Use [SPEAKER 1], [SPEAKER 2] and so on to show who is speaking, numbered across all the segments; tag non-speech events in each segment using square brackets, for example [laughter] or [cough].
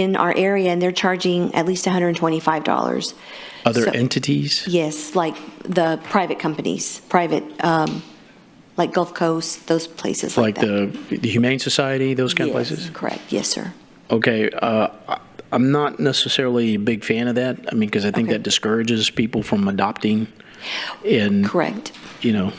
[SPEAKER 1] in our area, and they're charging at least $125.
[SPEAKER 2] Other
[SPEAKER 1] So-
[SPEAKER 2] entities?
[SPEAKER 1] Yes, like the private companies, private, um, like Gulf Coast, those places like
[SPEAKER 2] Like
[SPEAKER 1] that.
[SPEAKER 2] the the Humane Society, those kind of
[SPEAKER 1] Yes,
[SPEAKER 2] places?
[SPEAKER 1] Correct, yes, sir.
[SPEAKER 2] Okay, uh, I- I'm not necessarily a big fan of that. I mean, because I think
[SPEAKER 1] Okay.
[SPEAKER 2] that discourages people from adopting and,
[SPEAKER 1] Correct.
[SPEAKER 2] you know,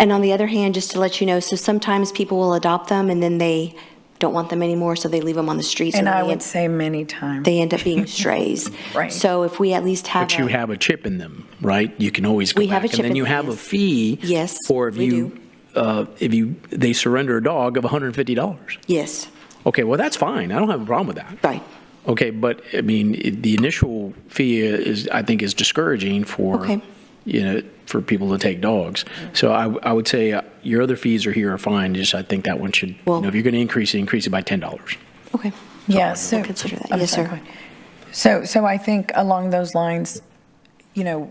[SPEAKER 1] And on the other hand, just to let you know, so sometimes people will adopt them and then they don't want them anymore, so they leave them on the streets.
[SPEAKER 3] And
[SPEAKER 1] then
[SPEAKER 3] I
[SPEAKER 1] they
[SPEAKER 3] would
[SPEAKER 1] end-
[SPEAKER 3] say many times.
[SPEAKER 1] They end up
[SPEAKER 3] [laughs]
[SPEAKER 1] being strays.
[SPEAKER 3] Right.
[SPEAKER 1] So if we at least have.
[SPEAKER 2] but you
[SPEAKER 1] a-
[SPEAKER 2] have a chip in them, right? You can always go
[SPEAKER 1] We have
[SPEAKER 2] back.
[SPEAKER 1] a chip
[SPEAKER 2] And then
[SPEAKER 1] in
[SPEAKER 2] you
[SPEAKER 1] them,
[SPEAKER 2] have a
[SPEAKER 1] yes.
[SPEAKER 2] fee.
[SPEAKER 1] Yes,
[SPEAKER 2] Or if
[SPEAKER 1] we
[SPEAKER 2] you, uh, if you, they surrender a dog of $150.
[SPEAKER 1] Yes,
[SPEAKER 2] Okay, well, that's fine. I don't have a problem with that.
[SPEAKER 1] right.
[SPEAKER 2] Okay, but I mean, it- the initial fee is, I think, is discouraging for,
[SPEAKER 1] Okay.
[SPEAKER 2] you know, for people to take dogs. So I, w- I would say uh, your other fees are here are fine, just I think that one should, you
[SPEAKER 1] Well-
[SPEAKER 2] know, if you're going to increase it, increase it by $10.
[SPEAKER 1] Okay.
[SPEAKER 3] Yeah, so.
[SPEAKER 1] consider that.
[SPEAKER 3] I'm
[SPEAKER 1] Yes,
[SPEAKER 3] sorry,
[SPEAKER 1] sir.
[SPEAKER 3] go ahead. So, so I think along those lines, you know,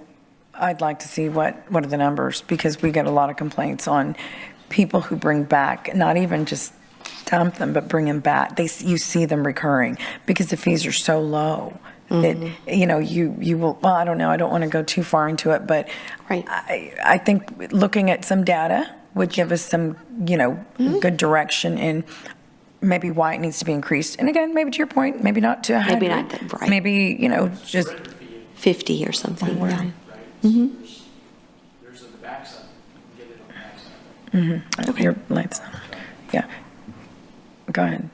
[SPEAKER 3] I'd like to see what, what are the numbers? Because we get a lot of complaints on people who bring back, not even just dump them, but bring them back. They, s- you see them recurring because the fees are so low. That,
[SPEAKER 1] Mm-hmm.
[SPEAKER 3] you know, you, you will, well, I don't know, I don't want to go too far into it, but
[SPEAKER 1] Right.
[SPEAKER 3] I, I think looking at some data would give us some, you know,
[SPEAKER 1] Mm-hmm.
[SPEAKER 3] good direction in maybe why it needs to be increased. And again, maybe to your point, maybe not to a
[SPEAKER 1] Maybe
[SPEAKER 3] 100.
[SPEAKER 1] not that- right.
[SPEAKER 3] Maybe, you know, just,
[SPEAKER 1] 50 or something,
[SPEAKER 3] Somewhere.
[SPEAKER 1] yeah.
[SPEAKER 4] There's on the backside, you can get it on the backside.
[SPEAKER 3] your lights, on. yeah. Go ahead.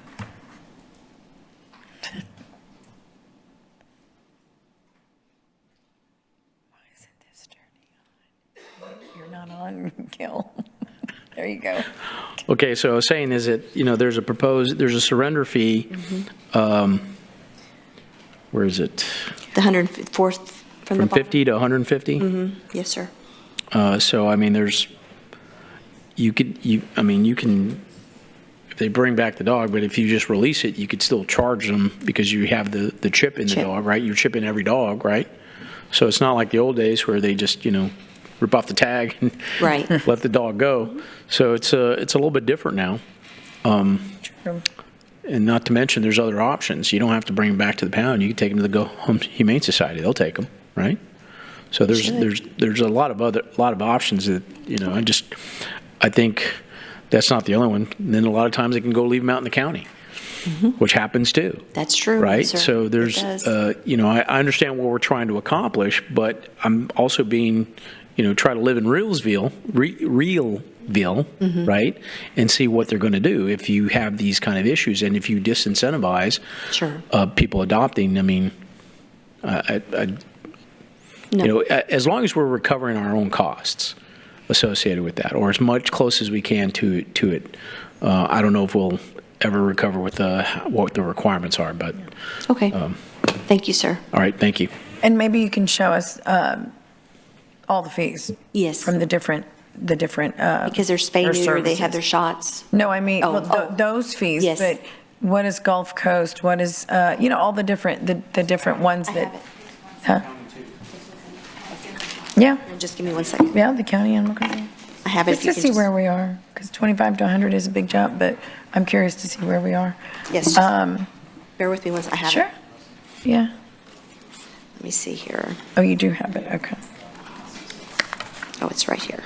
[SPEAKER 3] Why isn't this turning on? You're not on, Gil. There you go.
[SPEAKER 2] Okay, so I was saying is that, you know, there's a proposed, there's a surrender fee.
[SPEAKER 1] Mm-hmm.
[SPEAKER 2] um, Where is it?
[SPEAKER 1] The 104th from the
[SPEAKER 2] From
[SPEAKER 1] bottom.
[SPEAKER 2] 50 to 150?
[SPEAKER 1] Yes, sir.
[SPEAKER 2] Uh, So, I mean, there's, you could, you, I mean, you can, if they bring back the dog, but if you just release it, you could still charge them because you have the, the chip in the
[SPEAKER 1] Chip.
[SPEAKER 2] dog, right? You're chipping every dog, right? So it's not like the old days where they just, you know, rip off the tag and [laughs]
[SPEAKER 1] Right.
[SPEAKER 2] let the dog go. So it's a, it's a little bit different now. And not to mention, there's other options. You don't have to bring them back to the pound. You can take them to the Go Home Humane Society. They'll take them, right? So there's
[SPEAKER 1] Should.
[SPEAKER 2] there's there's a lot of other lot of options that you know. I just I think that's not the only one. And then a lot of times they can go leave them out in the county, which happens too,
[SPEAKER 1] That's true.
[SPEAKER 2] right?
[SPEAKER 1] sir.
[SPEAKER 2] So
[SPEAKER 1] Mm-hmm. It
[SPEAKER 2] there's
[SPEAKER 1] does.
[SPEAKER 2] uh, you know I, I understand what we're trying to accomplish, but I'm also being you know try to live in Realsville, re, Realville,
[SPEAKER 1] Mm-hmm.
[SPEAKER 2] right, and see what they're going to do if you have these kind of issues and if you disincentivize
[SPEAKER 1] Sure.
[SPEAKER 2] uh, people adopting. I mean, I, I, I you know, a- as long as we're recovering our own costs associated with that, or as much close as we can to to it, uh, I don't know if we'll ever recover with the what the requirements are. But
[SPEAKER 1] Okay.
[SPEAKER 2] um,
[SPEAKER 1] Thank you, sir.
[SPEAKER 2] all right, thank you.
[SPEAKER 3] And maybe you can show us um, all the fees
[SPEAKER 1] Yes,
[SPEAKER 3] from the different, the different. uh,
[SPEAKER 1] because they're spay
[SPEAKER 3] their
[SPEAKER 1] neuter, they have
[SPEAKER 3] services.
[SPEAKER 1] their shots.
[SPEAKER 3] No, I mean,
[SPEAKER 1] Oh,
[SPEAKER 3] well, tho-
[SPEAKER 1] oh.
[SPEAKER 3] those fees.
[SPEAKER 1] Yes.
[SPEAKER 3] But what is Gulf Coast? What is, uh, you know, all the different, the the different ones that. Huh? Yeah,
[SPEAKER 1] Just give me one second.
[SPEAKER 3] yeah, the county animal control.
[SPEAKER 1] I have it. if
[SPEAKER 3] Just
[SPEAKER 1] you
[SPEAKER 3] to
[SPEAKER 1] can
[SPEAKER 3] see
[SPEAKER 1] just-
[SPEAKER 3] where we are, because 25 to 100 is a big jump, but I'm curious to see where we are.
[SPEAKER 1] Yes, just-
[SPEAKER 3] Um,
[SPEAKER 1] Bear with me once, I have it.
[SPEAKER 3] Sure, yeah.
[SPEAKER 1] Let me see here.
[SPEAKER 3] Oh, you do have it, okay.
[SPEAKER 1] Oh, it's right here.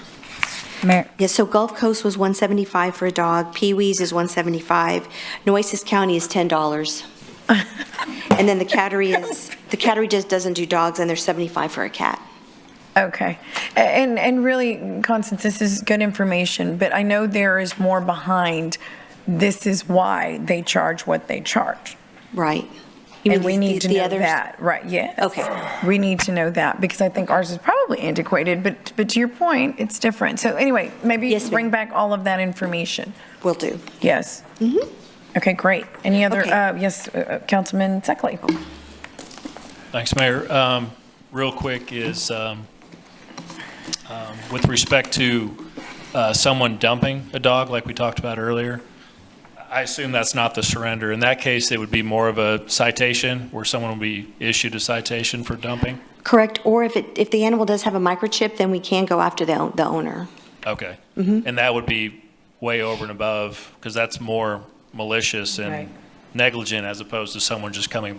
[SPEAKER 5] Mayor,
[SPEAKER 1] Yes, so Gulf Coast was 175 for a dog, Pee Wee's is 175, Nueces County is [laughs] $10. And then the cattery is, the cattery just doesn't do dogs, and they're 75 for a cat.
[SPEAKER 3] Okay. A- And, and really, Constance, this is good information, but I know there is more behind, this is why they charge what they charge.
[SPEAKER 1] Right. You
[SPEAKER 3] And
[SPEAKER 1] mean
[SPEAKER 3] we
[SPEAKER 1] the-
[SPEAKER 3] need to
[SPEAKER 1] the
[SPEAKER 3] know
[SPEAKER 1] others-
[SPEAKER 3] that, right, yes.
[SPEAKER 1] Okay.
[SPEAKER 3] We need to know that, because I think ours is probably antiquated, but, but to your point, it's different. So anyway, maybe
[SPEAKER 1] Yes, ma'am.
[SPEAKER 3] bring back all of that information.
[SPEAKER 1] Will do.
[SPEAKER 3] Yes. Okay, great. Any other,
[SPEAKER 1] Mm-hmm. Okay.
[SPEAKER 3] uh, yes, uh, uh, Councilman Seckley?
[SPEAKER 4] Thanks, Mayor. Um, Real quick is, um, um, with respect to uh, someone dumping a dog, like we talked about earlier, I assume that's not the surrender. In that case, it would be more of a citation, where someone will be issued a citation for dumping?
[SPEAKER 1] Correct, or if it, if the animal does have a microchip, then we can go after the, o- the owner.
[SPEAKER 4] Okay. And that would be way over and above, because that's more malicious
[SPEAKER 3] Right.
[SPEAKER 4] and negligent as opposed to someone just coming